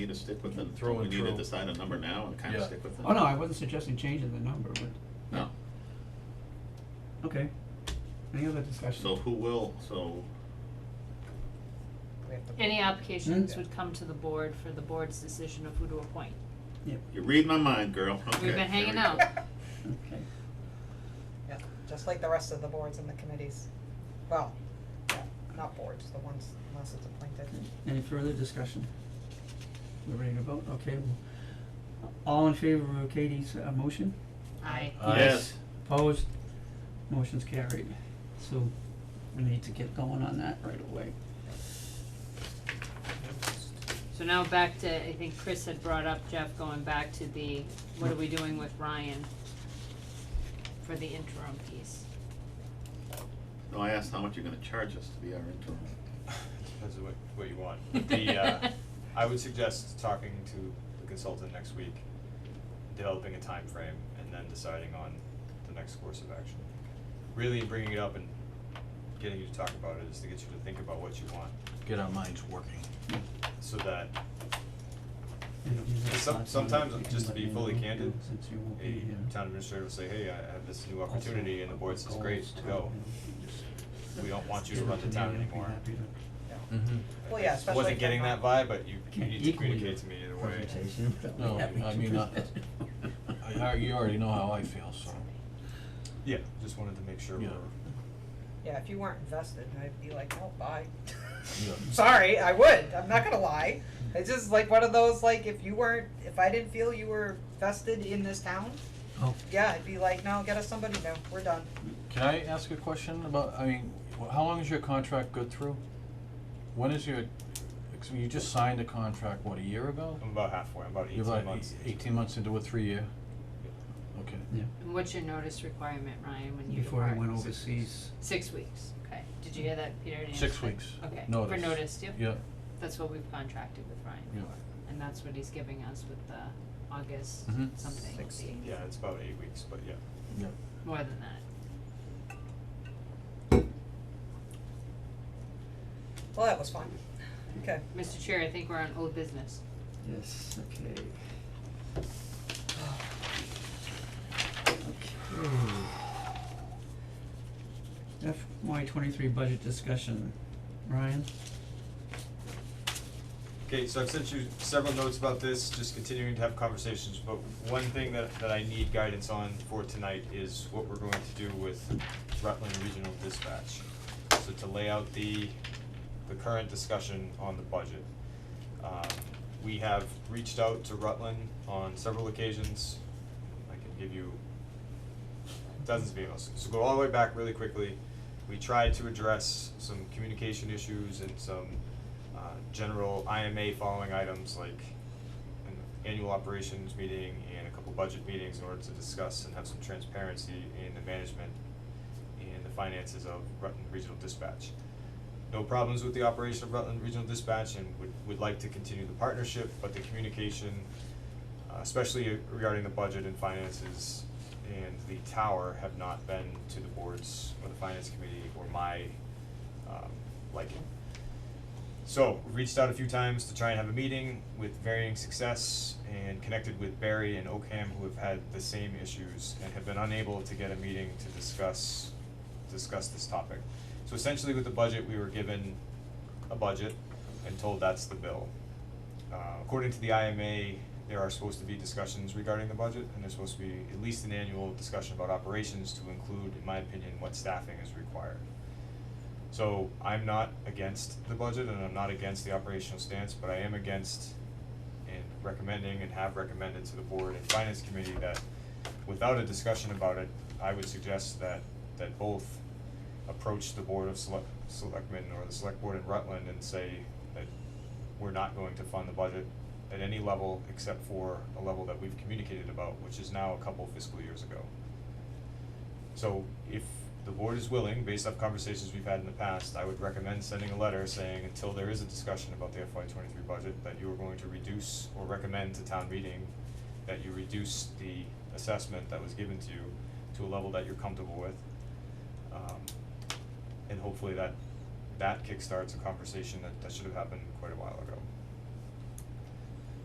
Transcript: need to stick with them, Through we and need to through. decide a number now and kind of Yeah. stick with it. Oh, no, I wasn't suggesting changing the number, but, No, okay. Any other discussion? so who will, so, We have to- Any applications Mm. Hmm? would come to the board for the board's decision of who to appoint. you read my mind, girl, okay. We've been there hanging we go. out. Okay. Yeah, just like the rest of the boards and the committees. Well, yeah, not boards, the ones, unless it's appointed. Any further discussion? We're ready to vote, okay. well, All in favor of Katie's uh, motion? I, Aye. Yes. Opposed? Motion's carried. So we need to get going on that right away. so now back to, I think Chris had brought up, Jeff, going back to the, what are we doing with Ryan? For the interim piece. No, I asked how much you're gonna charge us to be our interim. Depends on what, what you want. But The, uh, I would suggest talking to the consultant next week, developing a time frame, and then deciding on the next course of action. Really bringing it up and getting you to talk about it is to get you to think about what you want, Get our minds working. so that And if you have Some- thoughts on it, sometimes, you can just to let be me fully know, candid, since you won't be a here. town administrator will say, hey, I have this new Also, opportunity, and the board says, goals, great, time, go. you know, just We don't want you to give it run the me, town I'd be anymore. happy to- Mm-hmm. I- Well, yeah, I especially just if wasn't they're getting that not- vibe, but you, you Can't need to equal your communicate to me either way. presentation. No, Happy I to mean, uh, present it. I, I- you already know how I feel, so. Yeah, just wanted to make sure we're. Yeah. Yeah, if you weren't invested, I'd be like, oh, bye. Yeah. Sorry, I would, I'm not gonna lie. It's just like one of those, like, if you weren't, if I didn't feel you were vested in this town, Oh. yeah, I'd be like, no, get us somebody new, we're done. Can I ask a question about, I mean, wh- how long is your contract good through? When is your, ex- you just signed a contract, what, a year ago? I'm about halfway. I'm about You're eighteen about months. eight- eighteen months into a three-year? Okay. And what's your notice requirement, Ryan, when you Before depart? he went overseas, Six weeks, okay. Did you hear that, Peter? Did you Six understand? weeks. Okay, for Notice. notice, yep. Yeah, That's what we've contracted with Ryan Yeah. for, and that's what he's giving us with the August Mhm. something, Sixteen. fee. Yeah, it's about eight weeks, but yeah. yeah. more than that. Well, that was fun. Okay, Mr. Chair, I think we're on old business. yes, okay. Okay. FY twenty-three budget discussion, Ryan? Okay, so I've sent you several notes about this, just continuing to have conversations, but one thing that, that I need guidance on for tonight is what we're going to do with Rutland Regional Dispatch. So to lay out the, the current discussion on the budget. Um, we have reached out to Rutland on several occasions. I can give you dozens of emails. So go all the way back really quickly. We tried to address some communication issues and some uh, general IMA following items like an annual operations meeting and a couple budget meetings in order to discuss and have some transparency in the management and the finances of Rutland Regional Dispatch. No problems with the operation of Rutland Regional Dispatch and would, would like to continue the partnership, but the communication, uh, especially regarding the budget and finances and the tower have not been to the boards or the finance committee or my, um, liking. So, we've reached out a few times to try and have a meeting with varying success and connected with Barry and Oakham who have had the same issues and have been unable to get a meeting to discuss, discuss this topic. So essentially with the budget, we were given a budget and told that's the bill. Uh, according to the IMA, there are supposed to be discussions regarding the budget and there's supposed to be at least an annual discussion about operations to include, in my opinion, what staffing is required. So I'm not against the budget and I'm not against the operational stance, but I am against and recommending and have recommended to the board and finance committee that without a discussion about it, I would suggest that that both approach the board of select selectmen or the select board in Rutland and say that we're not going to fund the budget at any level except for a level that we've communicated about, which is now a couple fiscal years ago. So if the board is willing, based off conversations we've had in the past, I would recommend sending a letter saying until there is a discussion about the FY twenty-three budget, that you are going to reduce or recommend to town meeting that you reduce the assessment that was given to you to a level that you're comfortable with. Um, and hopefully that, that kickstarts a conversation that, that should have happened quite a while ago.